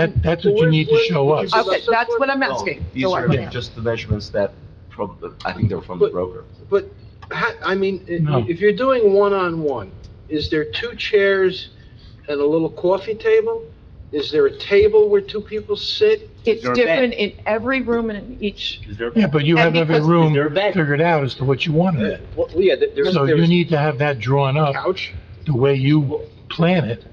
That, that's what you need to show us. Where's- Okay, that's what I'm No, asking. These So are I- just the measurements that from, the- I think they're from the But- broker. But, ha- I mean, No. i- if you're doing one-on-one, is there two chairs and a little coffee table? Is there a table where two people sit? It's Your bed. different in every room and in each, Is there, Yeah, but you have every And because- room They're back. figured out as to what you want in it. Well, yeah, there- there's, So you there's need to have that drawn a up couch. the way you plan it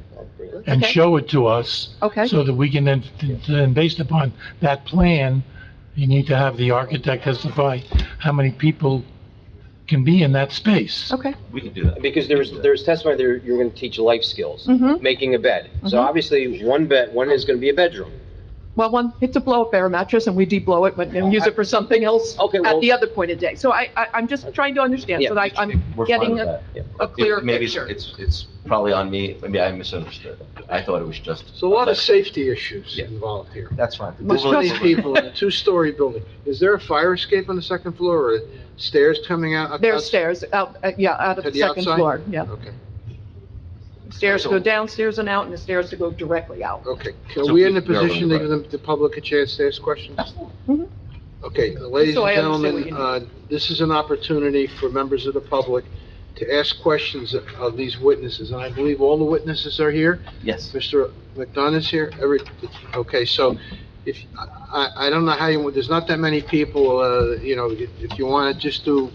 and Okay. show it to us okay? so that we can then, then based upon that plan, you need to have the architect testify how many people can be in that space. Okay, We can do that. Because there was, there was testimony there, you're gonna teach life skills, Mm-hmm. mhm. making a bed. So Mhm. obviously, one bed, one is gonna be a bedroom. Well, one, it's a blow-up air mattress and we de-blow it, but then use it for something else Okay, at well- the other point of day. So I, I, I'm just trying to understand, so Yeah, that I- I'm We're fine getting with a, that. a clear It- Maybe it's- picture. it's, it's probably on me, maybe I misunderstood. I thought it was just. There's a lot of safety issues Yeah. involved here. That's fine. There's Well, many trust- people in a two-story building. Is there a fire escape on the second floor or stairs coming out? There's stairs out, uh, yeah, out of To the the second outside? floor, yeah. Okay, Stairs to go downstairs and out and the stairs to go directly out. okay. So Are we in a we- we are position to right. give them- the public a chance to ask questions? Mm-hmm. Mhm. Okay, ladies So and I understand what gentlemen, uh, this is an opportunity for members of the public to ask questions of these witnesses, and I believe all the witnesses are here. Yes. Mr. McDonough is here, every, okay, so if, I, I- I don't know how you, there's not that many people, uh, you know, if if you want to just do,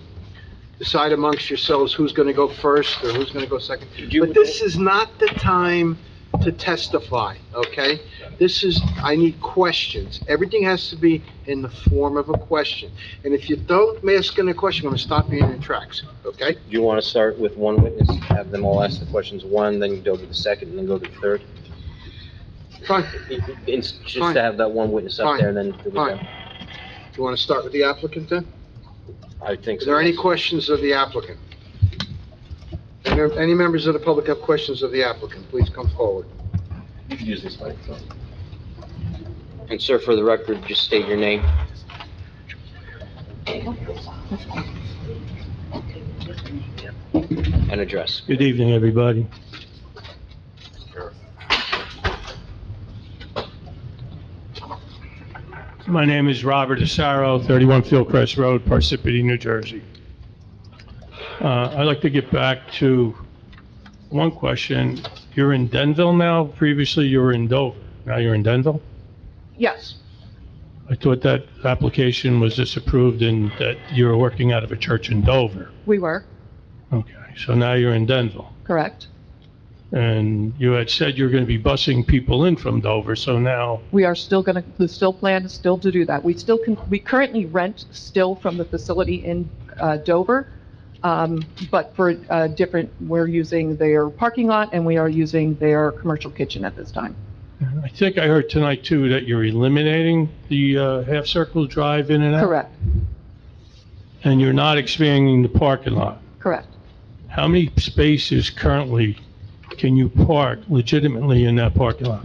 decide amongst yourselves who's going to go first or who's going to go second. But this is not the time to testify, okay? This is, I need questions. Everything has to be in the form of a question. And if you don't ask in a question, I'm going to stop you in your tracks, okay? Do you wanna start with one witness, have them all ask the questions, one, then you go to the second, and then go to the third? Fine, It's just Mm-hmm. Fine. to have that one witness up Fine. there, and then do Fine. that. do you want to start with the applicant then? I think Is so. there any questions of the applicant? Are there Any members of the public have questions of the applicant, please come forward. You can use this microphone. And sir, for the record, just state your name. And address. Good evening, everybody. My name is Robert Asaro, 31 Fieldcrest Road, Parsippany, New Jersey. Uh, I'd like to get back to one question. You're in Denville now? Previously, you were in Dover. Now you're in Denville? Yes, I thought that application was disapproved and that you were working out of a church in Dover. we were, Okay, so now you're in Denville. correct. And you had said you were going to be busing people in from Dover, so now, We are still gonna, the still plan is still to do that. We still can, we currently rent still from the facility in uh, Dover. Um, but for uh different, we're using their parking lot and we are using their commercial kitchen at this time. I think I heard tonight too that you're eliminating the uh, half-circle drive in and out? Correct, And you're not expanding the parking lot. correct. How many spaces currently can you park legitimately in that parking lot?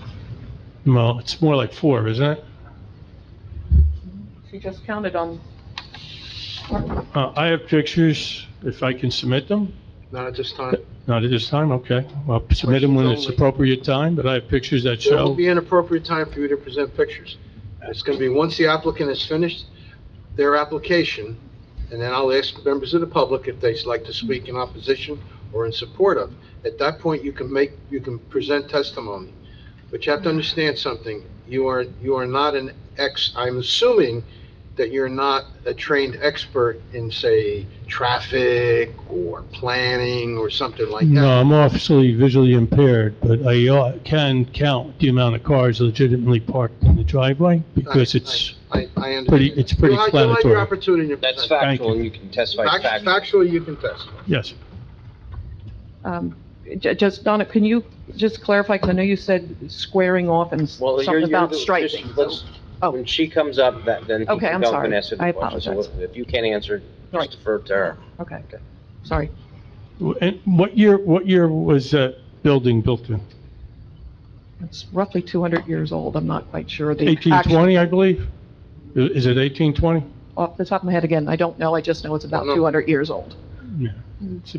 Five. Well, it's more like four, isn't it? She just counted on, Uh, I have pictures, if I can submit them. Not at this time. Not at this time, okay. I'll submit them when it's appropriate time, but I have pictures that It will show, be an appropriate time for you to present pictures. It's going to be, once the applicant has finished their application, and then I'll ask members of the public if they'd like to speak in opposition or in support of. At that point, you can make, you can present testimony. But you have to understand something, you are, you are not an ex, I'm assuming that you're not a trained expert in, say, traffic or planning or something like no, that. I'm obviously visually impaired, but I uh, can count the amount of cars legitimately parked in the driveway because it's, I, I understand. Pretty- it's pretty You'll have- you'll have your explanatory. opportunity to That's present. factual, and you can testify Fact- factually. Factually, you can testify. yes. um, j- just, Donna, can you just clarify, because I know you said squaring off and s- Well, you're- something you're about the- just striping. let's- Oh. When she comes up, that, then. Okay, I'm develop sorry. and answer the I question. So apologize. If you can't answer, Right. just defer to her. Okay, sorry. And what year, what year was that building built in? It's roughly 200 years old, I'm not quite sure. the actual- 1820, I believe? I- Is it 1820? Off the top of my head again, I don't know, I just know it's about No. 200 years old. It's a